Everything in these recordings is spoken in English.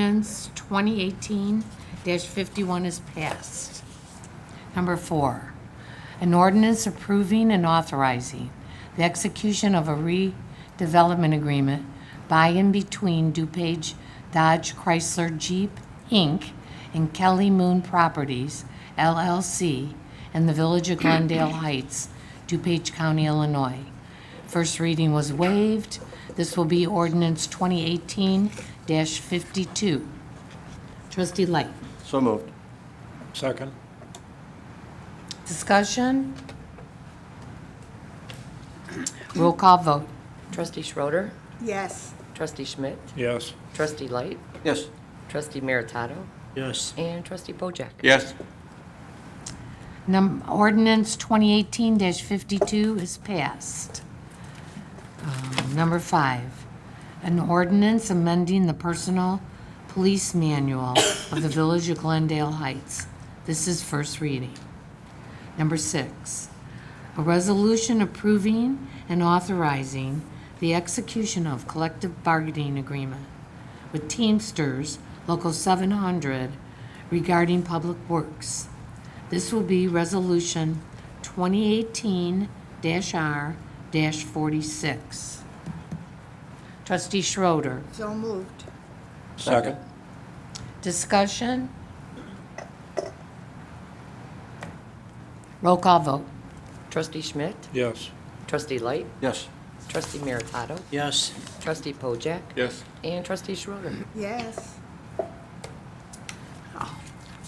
Ordinance 2018-51 is passed. Number four, an ordinance approving and authorizing the execution of a redevelopment agreement by and between DuPage Dodge Chrysler Jeep, Inc. and Kelly Moon Properties, LLC, and the Village of Glendale Heights, DuPage County, Illinois. First reading was waived. This will be ordinance 2018-52. Trustee Light. So moved. Second. Discussion? Roll call vote. Trustee Schroeder, Yes, Trustee Schmidt, Yes. Trustee Light, Yes. Trustee Meritato, Yes. and Trustee Pojek. Yes. Num- Ordinance 2018-52 is passed. Um, Number five, an ordinance amending the personal police manual of the Village of Glendale Heights. This is first reading. Number six, a resolution approving and authorizing the execution of collective bargaining agreement with Teamsters Local 700 regarding public works. This will be Resolution 2018-R-46. Trustee Schroeder, so moved. Second. discussion? Roll call vote. Trustee Schmidt, Yes. Trustee Light, Yes. Trustee Meritato, Yes. Trustee Pojek, Yes. and Trustee Schroeder. Yes,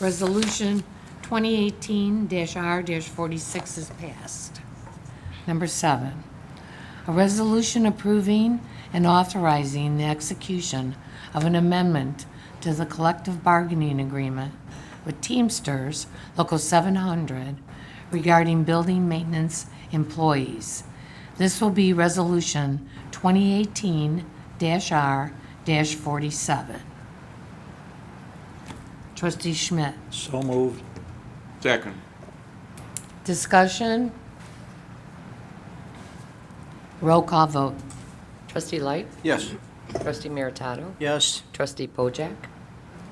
Resolution 2018-R-46 is passed. Number seven, a resolution approving and authorizing the execution of an amendment to the collective bargaining agreement with Teamsters Local 700 regarding building maintenance employees. This will be Resolution 2018-R-47. Trustee Schmidt. So moved. Second. Discussion? Roll call vote. Trustee Light, Yes. Trustee Meritato, Yes. Trustee Pojek,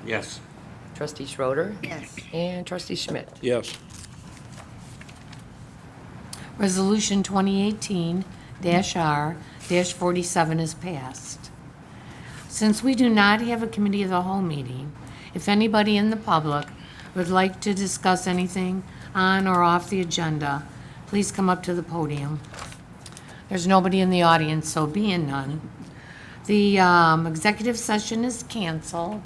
Yes. Trustee Schroeder, yes, and Trustee Schmidt. Yes. Resolution 2018-R-47 is passed. Since we do not have a committee of the whole meeting, if anybody in the public would like to discuss anything on or off the agenda, please come up to the podium. There's nobody in the audience, so being none. The um, executive session is canceled.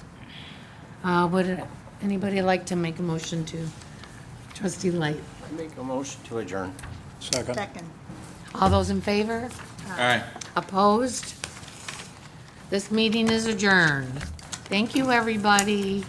Uh, Would anybody like to make a motion to? Trustee Light. I make a motion to adjourn. Second. second. All those in favor? Aye. Opposed? This meeting is adjourned. Thank you, everybody.